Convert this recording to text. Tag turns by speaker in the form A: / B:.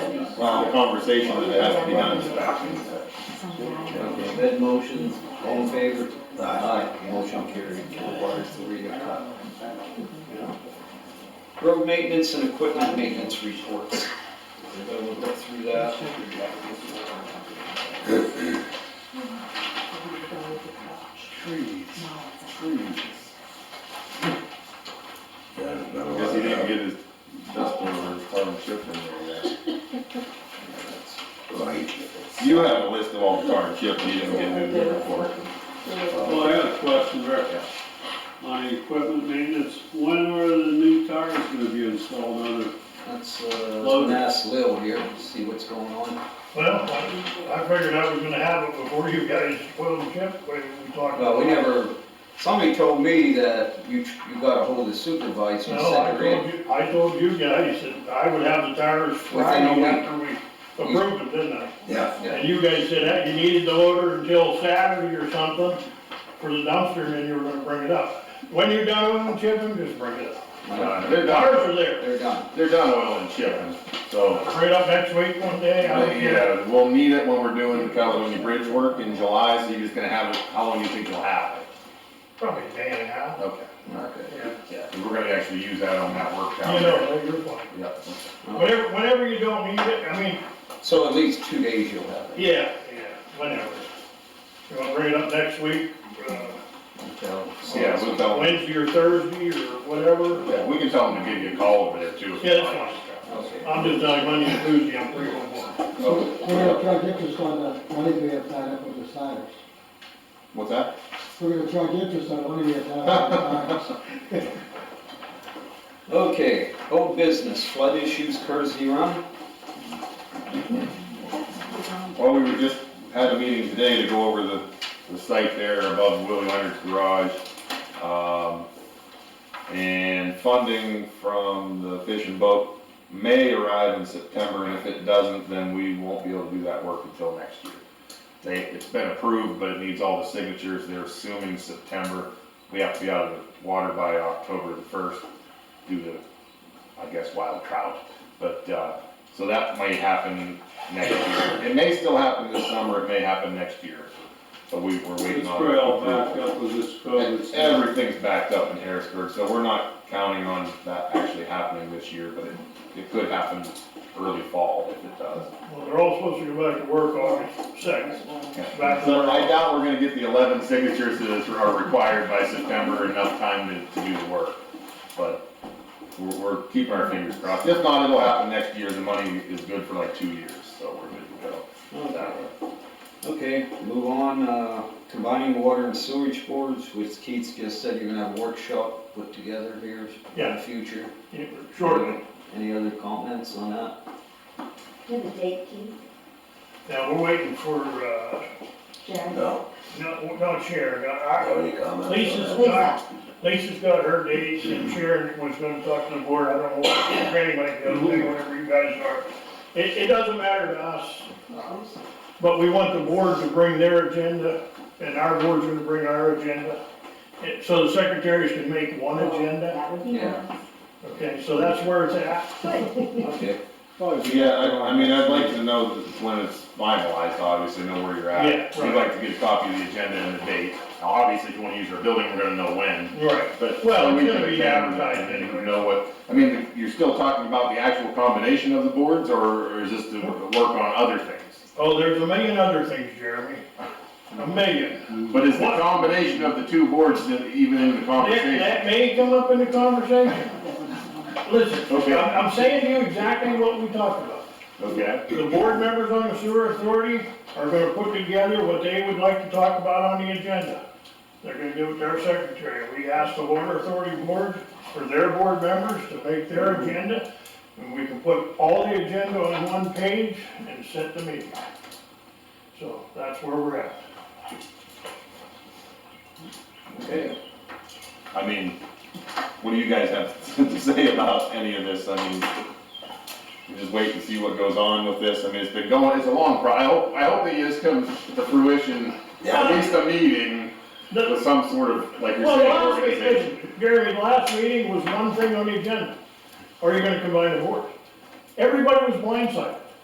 A: um, conversation that has to be done.
B: Okay, that motion, all in favor? Motion carried, requires the reading of title. Road maintenance and equipment maintenance reports. Everybody will look through that.
C: Trees, trees.
A: Because he didn't get his dust blower or carbon chip in there yet. You have a list of all the carbon chip, and you didn't get new different for it.
D: Well, I got a question, Rick. On the equipment maintenance, when are the new tires gonna be installed on it?
B: Let's, uh, let's ask Lil here, see what's going on.
E: Well, I I figured I was gonna have it before you guys spoiled the chip, but we talked.
B: Well, we never, somebody told me that you, you got ahold of the supervisor and
E: No, I
B: said,
E: told
B: "Grant,
E: you, I told you guys that I would have the tires
B: Within a
E: Friday
B: week.
E: after we approved it, didn't I?
C: Yeah.
B: Yeah.
E: And you guys said that you needed to order until Saturday or something for the dumpster, and then you were gonna bring it up. When you're done chipping, just bring it up.
B: no,
A: They're
E: The tires
A: done,
E: are there,
B: they're done.
A: they're done oiling and chipping, so,
E: straight up next week one day, I don't care.
A: yeah, we'll need it when we're doing the Caledonia Bridge work in July, so you're just gonna have it, how long do you think you'll have it?
E: probably a day and a half.
A: Okay,
B: Okay.
E: Yeah.
A: yeah, 'cause we're gonna actually use that on that work down
E: You
A: there.
E: know, you're fine.
A: Yep.
E: Whenever, whenever you don't need it, I mean,
B: So at least two days you'll have it.
E: Yeah, yeah, whenever. You wanna bring it up next week, uh,
B: So-
A: Yeah, we'll tell them,
E: Wednesday or Thursday or whatever?
A: yeah, we can tell them to give you a call over there too. if
E: Yeah,
A: you
E: that's
A: like.
E: fine.
B: Okay.
E: I'm just telling you, Monday and Tuesday, I'm free on one.
A: Oh,
F: We're gonna charge interest on the money we have tied up with the siders.
A: What's that?
F: We're gonna charge interest on the money we have tied up with the siders.
B: Okay, old business, flood issues, Kersey Run.
A: Well, we were just, had a meeting today to go over the, the site there above Willie Leonard's garage. Um, and funding from the fish and boat may arrive in September, and if it doesn't, then we won't be able to do that work until next year. They, it's been approved, but it needs all the signatures, they're assuming September, we have to be out of the water by October the first due to, I guess, wild trout. But, uh, so that might happen next year. It may still happen this summer, it may happen next year, but we, we're waiting
D: It's
A: on.
D: probably all backed
A: approval.
D: up with this COVID
A: And
D: stuff.
A: Everything's backed up in Harrisburg, so we're not counting on that actually happening this year, but it, it could happen early fall if it does.
E: Well, they're all supposed to go back to work August second. Back to
A: So I
E: work.
A: doubt we're gonna get the eleven signatures that are required by September, enough time to, to do the work. But we're, we're keeping our fingers crossed. If not, it'll happen next year. The money is good for like two years, so we're good to go. that way.
B: Okay, move on, uh, combining water and sewage boards, which Keith just said you're gonna have a workshop put together here in
E: Yeah.
B: the future.
E: Yeah, Shortly.
B: Any other comments on that?
G: Give the date, Keith,
E: Now, we're waiting for, uh,
G: Sharon.
C: No,
E: no, no, Sharon, I,
C: have any comments? on
E: Lisa's
C: that?
E: got, Lisa's got her dates and Sharon was gonna talk to the board, I don't know if anybody goes, whatever you guys are. It, it doesn't matter to us, But we want the board to bring their agenda, and our board's gonna bring our agenda. It- So the secretaries can make one agenda,
G: That would be
B: Yeah.
G: nice.
E: okay, so that's where it's at.
B: Okay,
A: Yeah, I, I mean, I'd like to know that when it's finalized, obviously, know where you're at.
E: Yeah,
A: We'd
E: right.
A: like to get a copy of the agenda and the date. Now, obviously, if you wanna use our building, we're gonna know when,
E: Right.
A: but.
E: Well,
A: we
E: it's gonna
A: can
E: be advertised
A: and
E: anyway.
A: Know what, I mean, you're still talking about the actual combination of the boards, or or is this to work on other things?
E: Oh, there's a million other things, Jeremy, a million.
A: But is the combination of the two boards that even in the
E: That,
A: conversation?
E: that may come up in the conversation. Listen,
A: Okay.
E: I'm, I'm saying to you exactly what we talked about.
A: Okay,
E: The board members on the sewer authority are gonna put together what they would like to talk about on the agenda. They're gonna do it to our secretary. We asked the water authority board for their board members to make their agenda. And we can put all the agenda on one page and set the meeting. So that's where we're at.
A: okay. I mean, what do you guys have to say about any of this? I mean, we just wait and see what goes on with this. I mean, it's been going, it's a long pro, I hope, I hope that this comes to fruition, at least a meeting
E: The-
A: with some sort of, like you're
E: Well, the
A: saying,
E: last
A: organization.
E: meeting, Gary, the last meeting was one thing on the agenda. Are you gonna combine the board? Everybody was blindsided.